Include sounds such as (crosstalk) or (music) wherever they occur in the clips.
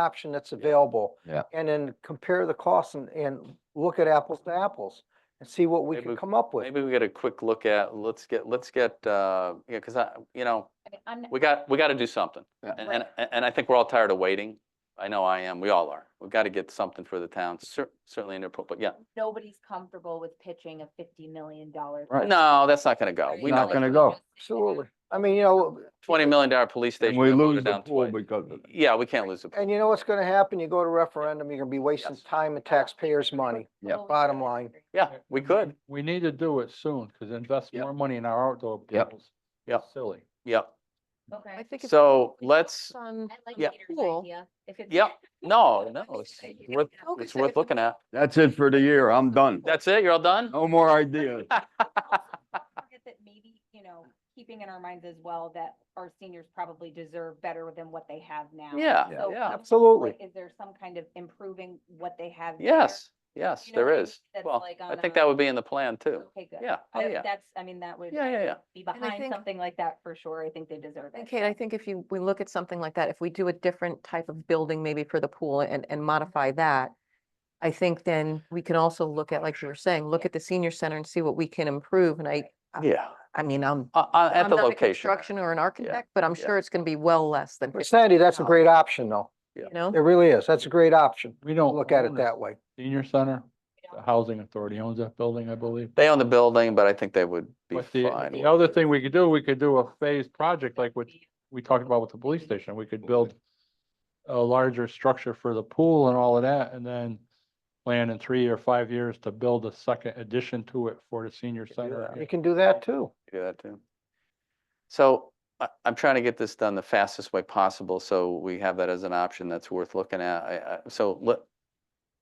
option that's available. Yeah. And then compare the costs and, and look at apples to apples and see what we Maybe can we- come up with. Maybe we get a quick look at, let's get, let's get, uh, yeah, because I, you know, I mean, I'm- we got, we got to do something. Yeah. And, and, and- and I think we're all tired of waiting. I know I am, we all are. We've got to get something for the town, cer- certainly in their, pro- but yeah. nobody's comfortable with pitching a fifty million dollar. Right. No, that's not going to go. It's We not know gonna that. go. Absolutely. I mean, you know, Twenty million dollar police And station. we got voted lose the down pool twice. because of it. Yeah, we can't lose the pool. and you know what's gonna happen? You go to referendum, you're gonna be wasting Yes. time and taxpayers' money. Yeah. Bottom line. Yeah, we could. We need to do it soon, because invest Yep. more money in our outdoor Yep. pools. is Yep. Silly. Mm-hmm. Yep. Okay. think it's So let's, on, I like Yeah. Peter's Cool. idea. If it's- Yep. no, no, it's worth, No, 'cause it's I- worth looking at. That's it for the year. I'm done. That's it? You're all done? No more (laughs) ideas. Don't forget that Maybe, you know, keeping in our minds as well that our seniors probably deserve better than what they have now. Yeah, Yeah. Oh, yeah. Absolutely. Like, is there some kind of improving what they have? there? Yes, yes, You know what there I mean? is. That's Well, like I on think a- that would be in the plan too. Okay, good. Yeah, oh That- yeah. That's, I mean, that would. Yeah, yeah, yeah. Be I behind think- something like that for sure. I think they deserve it. and Kate, I think if you, we look at something like that, if we do a different type of building maybe for the pool and, Mm-hmm. and modify that, I think then we can also look at, like you were saying, look at the senior center and see what we can improve. And I, Uh, Yeah, I mean, I'm, uh, uh, at I'm the not a location. construction or an architect, but I'm yeah. sure it's going to be well less than, But 50, Sandy, that's a great option though. you know? It really is. That's a great option. We Oh, don't. Look at it own that way. Senior Center, Yeah. the Housing Authority owns that building, I believe. They own the building, but I think they would be But the, fine. the with other it. thing we could do, we could do a phased project like what Be- we talked about with the police station. We could build a larger structure for the pool and all of that, and then plan in three or five years to build a second addition to it for the senior center. You can do that too. Do that too. So I, I'm trying to get this done the fastest way possible, so we have that as an option that's worth looking at. I, I, so let,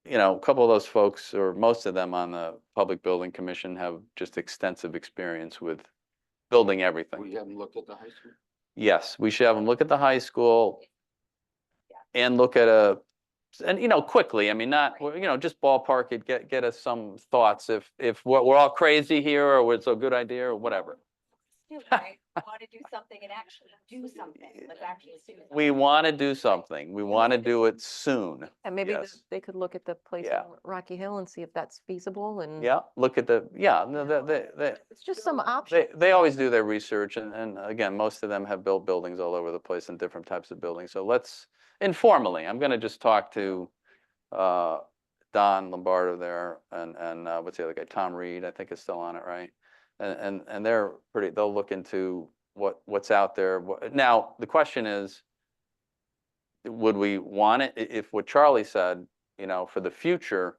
you know, a couple of those folks, or most of them on the Public Building Commission have just extensive experience with building everything. haven't looked at the high school. Yes, we should have them look at the high school and look at a, and, you know, quickly, I mean, not, well, you know, just ballpark it, get, get us some thoughts if, if we're, we're all crazy here or it's a good idea or whatever. do, (laughs) (laughs) right? Want to do something and actually do something, like actually do. something. We want to do something. We want to wanna do do it soon. And maybe the- Yes. they could look at the place Yeah. on Rocky Hill and see if that's feasible and. Yeah, look at the, yeah, no, the- the- the- It's just some option. they, they always do their research and, and again, most of them have built buildings all over the place and different types of buildings. So let's, informally, I'm going to just talk to uh, Don Lombardo there and, and uh, what's the other guy? Tom Reed, I think is still on it, right? And, and, and they're pretty, they'll look into what, what's out there. Wha- Now, the question is, would we want it, i- if what Charlie said, you know, for the future,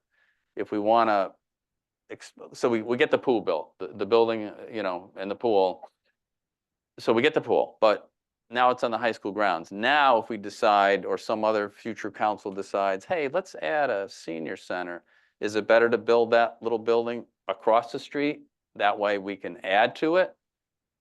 if we want to, so we, we get the pool built, the, the building, uh, you know, and the pool. So we get the pool, but now it's on the high school grounds. Now, if we decide, or some other future council decides, hey, let's add a senior center, is it better to build that little building across the street? That way we can add to it.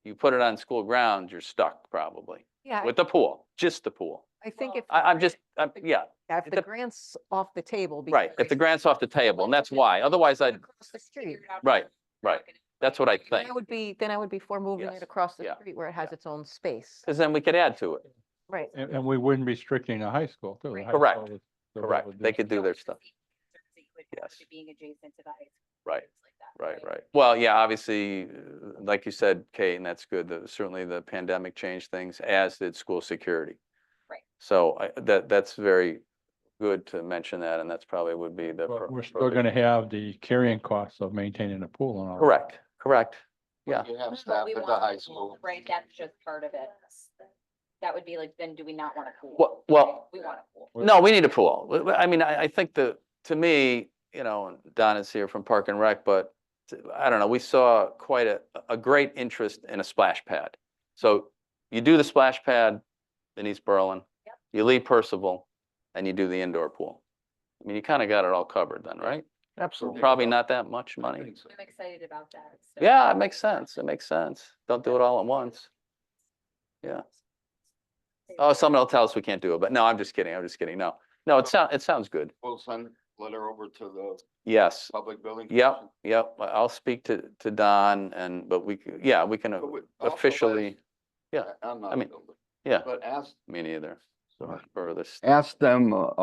You put it on school grounds, you're stuck probably Yeah, with the pool, just the pool. I think if. I, I'm just, I'm, yeah, If it the dep- grant's off the table. right. If because the grant's off the table, and that's why. Otherwise, I'd, Across the street. Figure it out Right, first. right. that's what I Then think. I would be, then I would be for moving Yes, it across the yeah, street where it has its own space. Because then we could add to it. Right. And, and we wouldn't be restricting the high school too. The high Correct, school is- they'll be correct. able to They do- could do Don't their just stuff. see it with regard Yes. to Being adjacent to the high school. Right, things like that, right, right. Well, yeah, obviously, uh, like you said, Kate, and that's good, the- certainly the pandemic changed things, as did school security. Right. So I, that, that's very good to mention that, and that's probably would be the. But pro- we're still pro- gonna have the carrying costs of maintaining a pool and all. that. Correct, correct. Yeah. You But have we want the pool, Right, that's just part of it. That would be like, then do we not want a pool? Well- well- right? We want a pool. Well- No, we need a pool. W- w- I mean, I, I think the, to me, you know, and Don is here from Park and Rec, but t- I don't know, we saw quite a, a great interest in a splash pad. So you do the splash pad in East Berlin, Yep. you leave Percival, and you do the indoor pool. I mean, you kind of got it all covered then, right? Absolutely. Probably not that much money. I'm excited about that. so- Yeah, it makes sense. It makes sense. Don't do it all at once. Yeah. Oh, someone will tell us we can't do it, but no, I'm just kidding. I'm just kidding. No, no, it sounds, it sounds good. We'll send letter over to the Yes, public building. yep, yep, I- I'll speak to, to Don and, but we, c- yeah, we can, uh, officially- yeah, I'm I not mean, building. yeah. But ask me neither. Sorry. furthest. Ask them, uh,